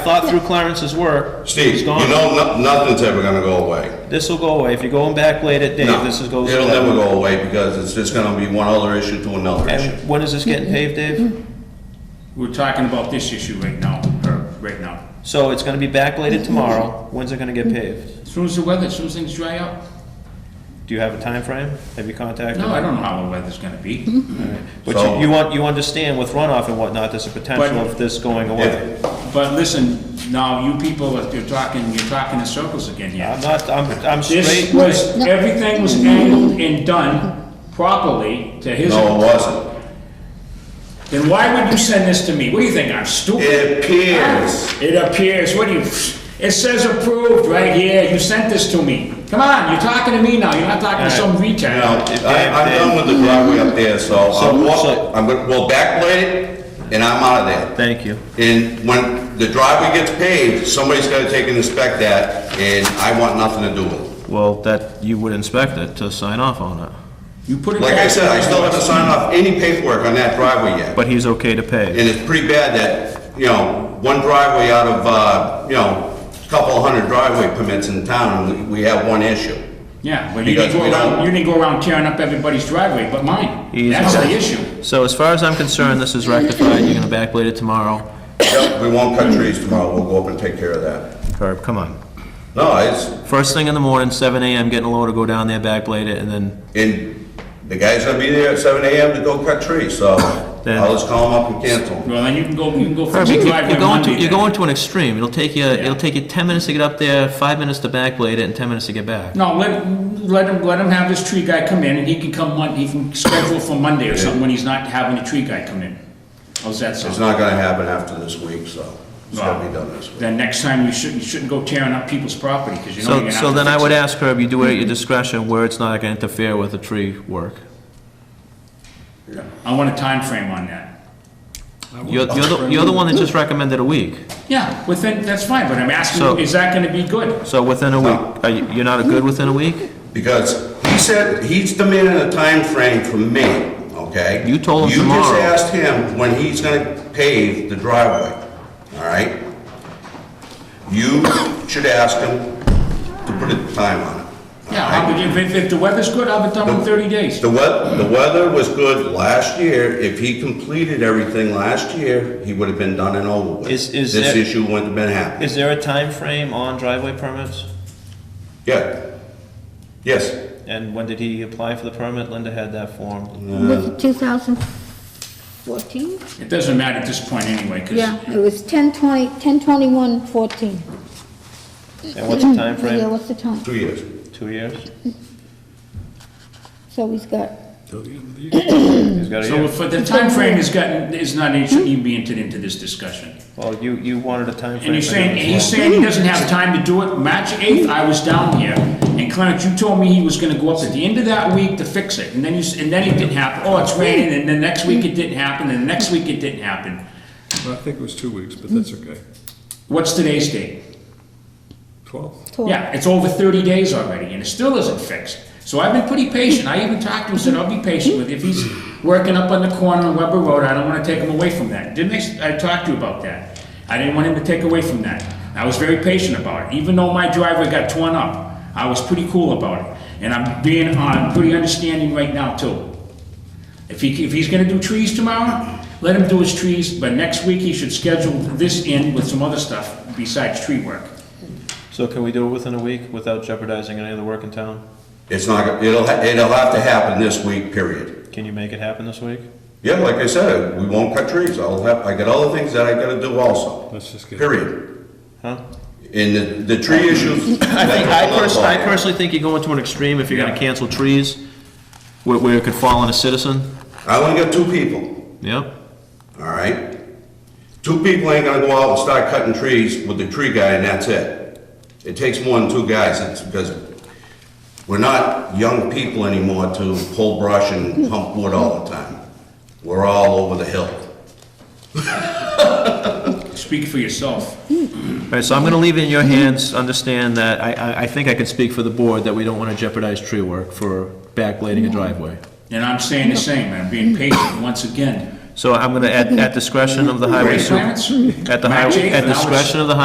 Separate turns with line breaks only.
Thought through Clarence's work.
Steve,
It's
you
gone.
know, no- nothing's ever gonna go away.
This will go away. If you're going back late at
No,
Dave, this is goes.
It'll never go away because it's just gonna be one other issue to another issue.
And when is this getting paved, Dave?
We're talking about this issue right now, or right now.
So it's gonna be backbladed tomorrow. When's it gonna get paved?
As soon as the weather, as soon as things dry up.
Do you have a time frame? Have you contacted?
No, Hmm?
them?
I don't know how the weather's gonna be.
But
So-
you, you want, you understand with runoff and whatnot, there's a potential
But-
of this going away.
Yeah,
But listen, now you people, you're talking, you're talking in circles again here.
I'm not, I'm, I'm
This
straight.
was, everything was angled and done properly to his.
No, it wasn't.
Then why would you send this to me? What do you think, I'm stupid?
It appears.
It appears, what do you, it says approved right here, you sent this to me. Come on, you're talking to me now, you're not talking to some
You
retard.
know, I, I'm done with the driveway up there,
So-
so I'm
so-
walking, I'm gonna, well, backblade it and I'm out of there.
Thank you.
And when the driveway gets paved, somebody's gonna take and inspect that and I want nothing to do with it.
Well, that, you would inspect it to sign off on it,
You put it.
Like I
back.
said, I still haven't signed off any paperwork on that driveway yet.
but he's okay to pay.
And it's pretty bad that, you know, one driveway out of, uh, you know, a couple hundred driveway permits in town, we- we have one issue.
Yeah, but you didn't
Because
go
we don't-
around, you didn't go around tearing up everybody's driveway, but mine.
He's-
That's the issue.
So as far as I'm concerned, this is rectified. You're gonna backblade it tomorrow.
Yep, we won't cut trees tomorrow, we'll go up and take care of that.
Herb, come on.
No, it's,
First thing in the morning, seven AM, getting a loader, go down there, backblade it, and then,
and the guy's gonna be there at seven AM to go cut trees, so I'll just call him up and cancel. him.
Well, then you can go, you can go fix your
you're
driveway
you're going to,
Monday
you're
then.
going to an extreme, it'll take you, it'll take you ten minutes to get up there, five minutes to backblade it, and ten minutes to get back.
No, let, let him, let him have this tree guy come in and he can come Monday, he can schedule for Monday or something when he's not having a tree guy come in. How's that
It's
sound?
not gonna happen after this week, so it's gonna be done this week.
Then next time you shouldn't, you shouldn't go tearing up people's property because you know you're
So,
gonna
so
have
then I
to
would
fix it.
ask Herb, you do it at your discretion where it's not gonna interfere with the tree work.
I want a time frame on that.
You're, you're the, you're the one that just recommended a week,
Yeah, within, that's fine, but I'm asking,
So-
you, is that gonna be good?
so within a week, are you, you're not a good within a week?
Because he said, he's demanding a time frame from me, okay?
You told him
You
tomorrow.
just asked him when he's gonna pave the driveway, all right? You should ask him to put a time on it. all
Yeah,
right?
I'll be- if, if- if the weather's good, I'll be done in thirty days.
The wea, the weather was good last year. If he completed everything last year, he would have been done and over with.
Is- is
This
there-
issue wouldn't have been happening.
Is there a time frame on driveway permits?
Yeah. Yes.
And when did he apply for the permit? Linda had that form.
Was it 2014?
It doesn't matter at this point anyway, cause
Yeah, it was 10/20, 10/21/14.
And what's the time
Yeah,
frame?
what's the time?
Two years.
Two years?
So he's got,
He's got a
Hmm. So
year.
if the timeframe has gotten, is not, it shouldn't even be entered into this discussion.
Well, you, you wanted a time frame.
And you're
for
saying,
him as
and he's
well.
saying he doesn't have time to do it. March 8th, I was down here, and Clarence, you told me he was gonna go up at the end of that week to fix it, and then you, s- and then it didn't happen. Oh, it's raining, and then next week it didn't happen, and the next week it didn't happen.
Well, I think it was two weeks, but that's okay.
What's today's date?
Twelve.
twelve.
Yeah, it's over 30 days already, and it still isn't fixed. So I've been pretty patient. I even talked to him, said, I'll be patient with you. If he's working up on the corner on Weber Road, I don't want to take him away from that. Didn't I, I talked to you about that. I didn't want him to take away from that. I was very patient about it. Even though my driveway got torn up, I was pretty cool about it. And I'm being, I'm pretty understanding right now too. If he, if he's gonna do trees tomorrow, let him do his trees, but next week he should schedule this in with some other stuff besides tree work.
So can we do it within a week without jeopardizing any of the work in town?
It's not, it'll, ha- it'll have to happen this week, period.
Can you make it happen this week?
Yeah, like I said, we won't cut trees. I'll have, I got other things that I gotta do also.
Let's just get-
Period.
Huh?
And the, the tree issues.
I think, I personally, I personally think you're going to an extreme if you're gonna
Yeah.
cancel trees, where, where it could fall on a citizen,
I only got two people.
yep.
All right? Two people ain't gonna go out and start cutting trees with the tree guy and that's it. It takes more than two guys, it's because we're not young people anymore to pull brush and hump wood all the time. We're all over the hill.
Speak for yourself.
Alright, so I'm gonna leave it in your hands, understand that, I, I, I think I can speak for the board that we don't wanna jeopardize tree work for backblading a driveway.
And I'm saying the same, I'm being patient once again.
So I'm gonna, at, at discretion of the highway
Great
super,
clearance.
at the highway,
Matching,
at
now it's-
discretion of the highway